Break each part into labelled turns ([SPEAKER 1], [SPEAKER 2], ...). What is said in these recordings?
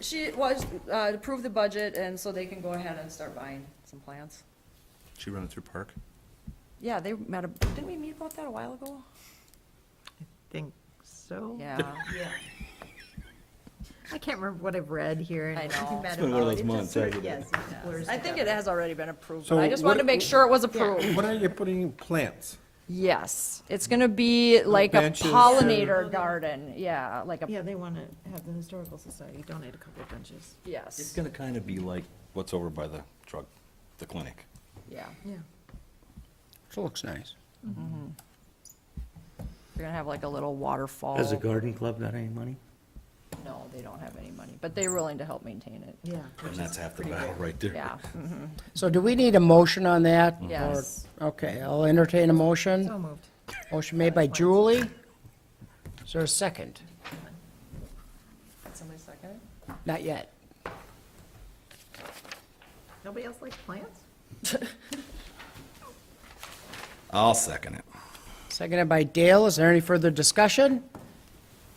[SPEAKER 1] She was, uh, approved the budget, and so they can go ahead and start buying some plants.
[SPEAKER 2] She run it through Park?
[SPEAKER 1] Yeah, they met, a- didn't we meet about that a while ago?
[SPEAKER 3] Think so?
[SPEAKER 1] Yeah,
[SPEAKER 3] I can't remember what I've read here. and
[SPEAKER 1] I
[SPEAKER 3] what
[SPEAKER 1] know.
[SPEAKER 3] we met
[SPEAKER 2] It's been one of
[SPEAKER 3] about.
[SPEAKER 2] those
[SPEAKER 3] It just
[SPEAKER 2] months,
[SPEAKER 3] sort of-
[SPEAKER 2] hasn't it?
[SPEAKER 3] Yes. it blurs
[SPEAKER 1] I think it
[SPEAKER 3] together.
[SPEAKER 1] has already been approved, but
[SPEAKER 4] So
[SPEAKER 1] I just wanted to
[SPEAKER 4] what-
[SPEAKER 1] make sure it was approved.
[SPEAKER 4] What are you putting in plants?
[SPEAKER 1] Yes, it's gonna be like a
[SPEAKER 4] Benches or-
[SPEAKER 1] pollinator garden, yeah, like a,
[SPEAKER 3] Yeah, they want to have the Historical Society donate a couple of benches.
[SPEAKER 2] It's
[SPEAKER 1] yes,
[SPEAKER 2] gonna kind of be like what's over by the drug, the clinic.
[SPEAKER 1] yeah.
[SPEAKER 3] Yeah.
[SPEAKER 5] It looks nice.
[SPEAKER 1] They're gonna have like a little waterfall.
[SPEAKER 6] Has the garden club got any money?
[SPEAKER 1] No, they don't have any money, but they're willing to help maintain it,
[SPEAKER 3] Yeah.
[SPEAKER 2] And that's half the battle right there.
[SPEAKER 1] yeah. mhm.
[SPEAKER 5] So do we need a motion on that? or-
[SPEAKER 1] Yes.
[SPEAKER 5] Okay, I'll entertain a
[SPEAKER 3] So
[SPEAKER 5] motion.
[SPEAKER 3] moved.
[SPEAKER 5] Motion made by Julie. Is there a second?
[SPEAKER 1] Somebody second?
[SPEAKER 5] Not yet.
[SPEAKER 3] Nobody else likes plants?
[SPEAKER 2] I'll second it.
[SPEAKER 5] Seconded by Dale. Is there any further discussion?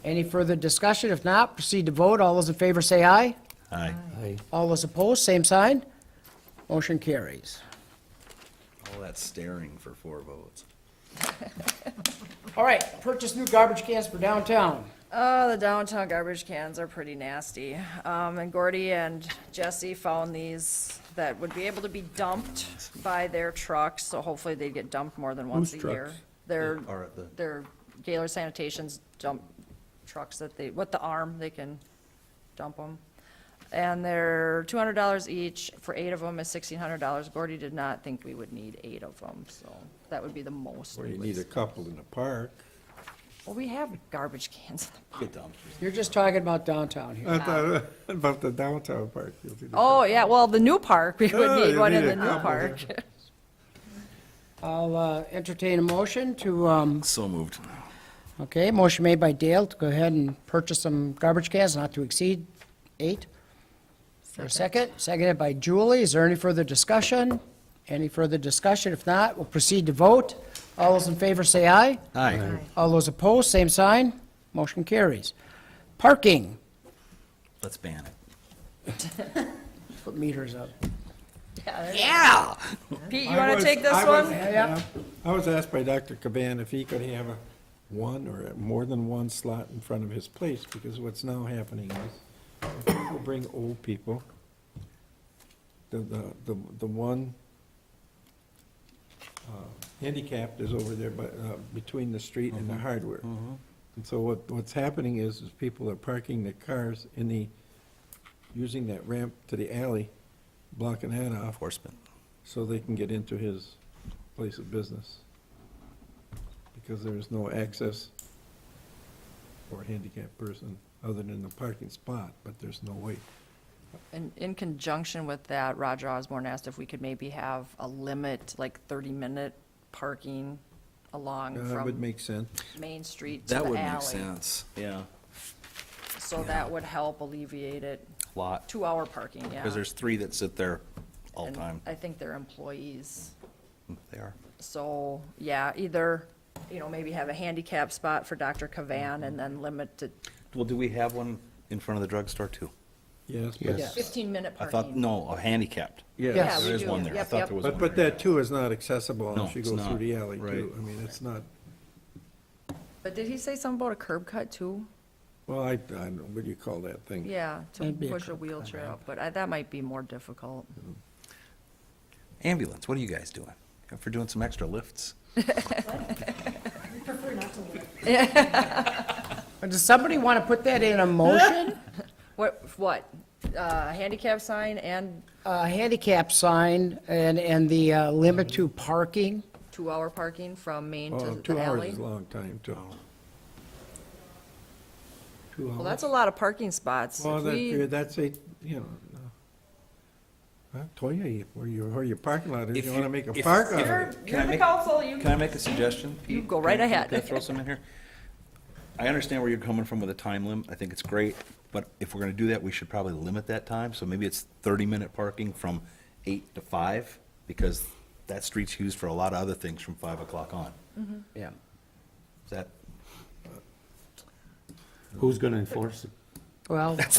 [SPEAKER 5] Any further discussion? If not, proceed to vote. All those in favor say aye.
[SPEAKER 2] Aye.
[SPEAKER 6] Aye.
[SPEAKER 5] All those opposed, same sign. Motion carries.
[SPEAKER 2] All that staring for four votes.
[SPEAKER 5] All right, purchase new garbage cans for downtown.
[SPEAKER 1] Oh, the downtown garbage cans are pretty nasty. Um, and Gordy and Jesse found these that would be able to be dumped by their trucks, so hopefully they get dumped more than once a
[SPEAKER 4] Whose
[SPEAKER 1] year.
[SPEAKER 4] trucks?
[SPEAKER 1] Their,
[SPEAKER 2] Or at the-
[SPEAKER 1] their Gaylor Sanitation's dump trucks that they, with the arm, they can dump them. And they're two hundred dollars each, for eight of them is sixteen hundred dollars. Gordy did not think we would need eight of them, so that would be the most.
[SPEAKER 4] Or
[SPEAKER 1] we
[SPEAKER 4] you
[SPEAKER 1] would-
[SPEAKER 4] need a couple in a park.
[SPEAKER 1] Well, we have garbage cans in the
[SPEAKER 2] Get dumped.
[SPEAKER 5] You're just talking about downtown here.
[SPEAKER 4] I thought about the downtown park. you'll see the-
[SPEAKER 1] Oh, yeah, well, the new park, we
[SPEAKER 4] Oh,
[SPEAKER 1] would need
[SPEAKER 4] you
[SPEAKER 1] one in
[SPEAKER 4] need
[SPEAKER 1] the
[SPEAKER 4] a
[SPEAKER 1] new
[SPEAKER 4] couple
[SPEAKER 1] park.
[SPEAKER 5] I'll uh, entertain a motion to, um,
[SPEAKER 2] So moved.
[SPEAKER 5] okay, motion made by Dale to go ahead and purchase some garbage cans not to exceed eight. For a second, seconded by Julie. Is there any further discussion? Any further discussion? If not, we'll proceed to vote. All those in favor say aye.
[SPEAKER 2] Aye.
[SPEAKER 5] All those opposed, same sign. Motion carries. Parking,
[SPEAKER 2] Let's ban it.
[SPEAKER 5] put meters up.
[SPEAKER 1] Pete, you
[SPEAKER 4] I
[SPEAKER 1] want to
[SPEAKER 4] was-
[SPEAKER 1] take this
[SPEAKER 4] I was-
[SPEAKER 1] one?
[SPEAKER 5] Yeah.
[SPEAKER 4] I was asked by Dr. Caban if he could have a one or more than one slot in front of his place, because what's now happening is people bring old people. The, the, the, the one uh, handicapped is over there, but, uh, between the street and the hardware. And so what, what's happening is, is people are parking their cars in the, using that ramp to the alley, blocking that off
[SPEAKER 2] Enforcement.
[SPEAKER 4] so they can get into his place of business. Because there is no access for a handicapped person other than the parking spot, but there's no way.
[SPEAKER 1] In, in conjunction with that, Roger Osborne asked if we could maybe have a limit, like thirty-minute parking along
[SPEAKER 4] Uh, That would
[SPEAKER 1] from
[SPEAKER 4] make sense.
[SPEAKER 1] Main Street to
[SPEAKER 2] That
[SPEAKER 1] the
[SPEAKER 2] would make
[SPEAKER 1] alley.
[SPEAKER 2] sense. Yeah.
[SPEAKER 1] So that would help alleviate it,
[SPEAKER 2] Lot.
[SPEAKER 1] two-hour parking, yeah.
[SPEAKER 2] Because there's three that sit there all
[SPEAKER 1] And
[SPEAKER 2] time.
[SPEAKER 1] I think they're employees.
[SPEAKER 2] They are.
[SPEAKER 1] So, yeah, either, you know, maybe have a handicap spot for Dr. Cavan and then limit to
[SPEAKER 2] Well, do we have one in front of the drugstore too?
[SPEAKER 4] Yes. but-
[SPEAKER 5] Yes.
[SPEAKER 1] fifteen-minute
[SPEAKER 2] I
[SPEAKER 1] parking.
[SPEAKER 2] thought, no, a handicapped.
[SPEAKER 1] Yeah,
[SPEAKER 4] Yes.
[SPEAKER 1] we
[SPEAKER 2] There is
[SPEAKER 1] do.
[SPEAKER 2] one there. I
[SPEAKER 1] Yep,
[SPEAKER 2] thought
[SPEAKER 1] yep.
[SPEAKER 2] there was one.
[SPEAKER 4] But, but
[SPEAKER 2] there.
[SPEAKER 4] that too is not accessible
[SPEAKER 2] No,
[SPEAKER 4] unless you
[SPEAKER 2] it's
[SPEAKER 4] go through
[SPEAKER 2] not,
[SPEAKER 4] the alley too.
[SPEAKER 2] right.
[SPEAKER 4] I mean, it's not,
[SPEAKER 1] But did he say something about a curb cut too?
[SPEAKER 4] well, I, I don't know, what do you call that thing?
[SPEAKER 1] Yeah, to
[SPEAKER 5] Might be a
[SPEAKER 1] push a
[SPEAKER 5] curb cut,
[SPEAKER 1] wheelchair up, but I, that might be more difficult.
[SPEAKER 2] Ambulance, what are you guys doing? If we're doing some extra lifts?
[SPEAKER 5] Does somebody want to put that in a motion?
[SPEAKER 1] What, what, uh, handicap sign and
[SPEAKER 5] A handicap sign and, and the uh, limit to parking?
[SPEAKER 1] two-hour parking from Main to
[SPEAKER 4] Oh,
[SPEAKER 1] the
[SPEAKER 4] two hours
[SPEAKER 1] alley?
[SPEAKER 4] is a long time too.
[SPEAKER 2] Oh.
[SPEAKER 4] Two
[SPEAKER 1] Well,
[SPEAKER 4] hours.
[SPEAKER 1] that's a lot of parking spots.
[SPEAKER 4] Well,
[SPEAKER 1] If
[SPEAKER 4] that, uh,
[SPEAKER 1] we,
[SPEAKER 4] that's a, you know, no. I told you, you- where your, where your parking lot is,
[SPEAKER 2] If
[SPEAKER 4] you
[SPEAKER 2] you-
[SPEAKER 4] wanna make a
[SPEAKER 2] if-
[SPEAKER 4] park out of
[SPEAKER 1] you're,
[SPEAKER 4] it.
[SPEAKER 2] Can I
[SPEAKER 1] you're the
[SPEAKER 2] make-
[SPEAKER 1] council, you,
[SPEAKER 2] Can I make a suggestion?
[SPEAKER 1] You
[SPEAKER 2] Pete?
[SPEAKER 1] go
[SPEAKER 2] Can-
[SPEAKER 1] right
[SPEAKER 2] can-
[SPEAKER 1] ahead.
[SPEAKER 2] Can I throw some in here? I understand where you're coming from with the time limit. I think it's great, but if we're gonna do that, we should probably limit that time. So maybe it's thirty-minute parking from eight to five, because that street's used for a lot of other things from five o'clock on.
[SPEAKER 5] Yeah.
[SPEAKER 2] Is that
[SPEAKER 6] Who's gonna enforce it?
[SPEAKER 5] Well.